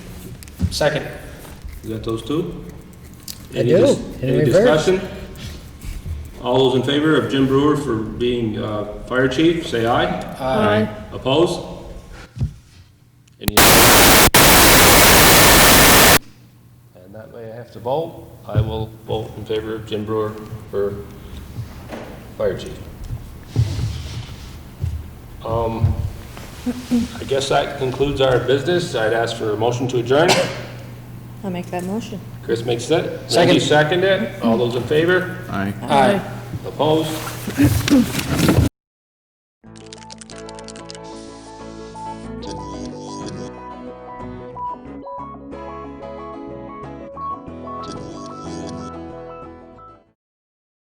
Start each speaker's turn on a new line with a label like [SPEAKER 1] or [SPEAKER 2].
[SPEAKER 1] Second.
[SPEAKER 2] You got those two?
[SPEAKER 3] I
[SPEAKER 2] Any
[SPEAKER 3] do,
[SPEAKER 2] dis-
[SPEAKER 3] in
[SPEAKER 2] Any
[SPEAKER 3] reverse.
[SPEAKER 2] discussion? All those in favor of Jim Brewer for being uh, fire chief, say aye.
[SPEAKER 3] Aye.
[SPEAKER 2] Opposed? Any? And that way I have to vote. I will vote in favor of Jim Brewer for fire chief. Um, I guess that concludes our business. I'd ask for a motion to adjourn.
[SPEAKER 4] I'll make that motion.
[SPEAKER 2] Chris makes it.
[SPEAKER 1] Second.
[SPEAKER 2] Randy seconded. All those in favor?
[SPEAKER 5] Aye.
[SPEAKER 1] Aye.
[SPEAKER 2] Opposed?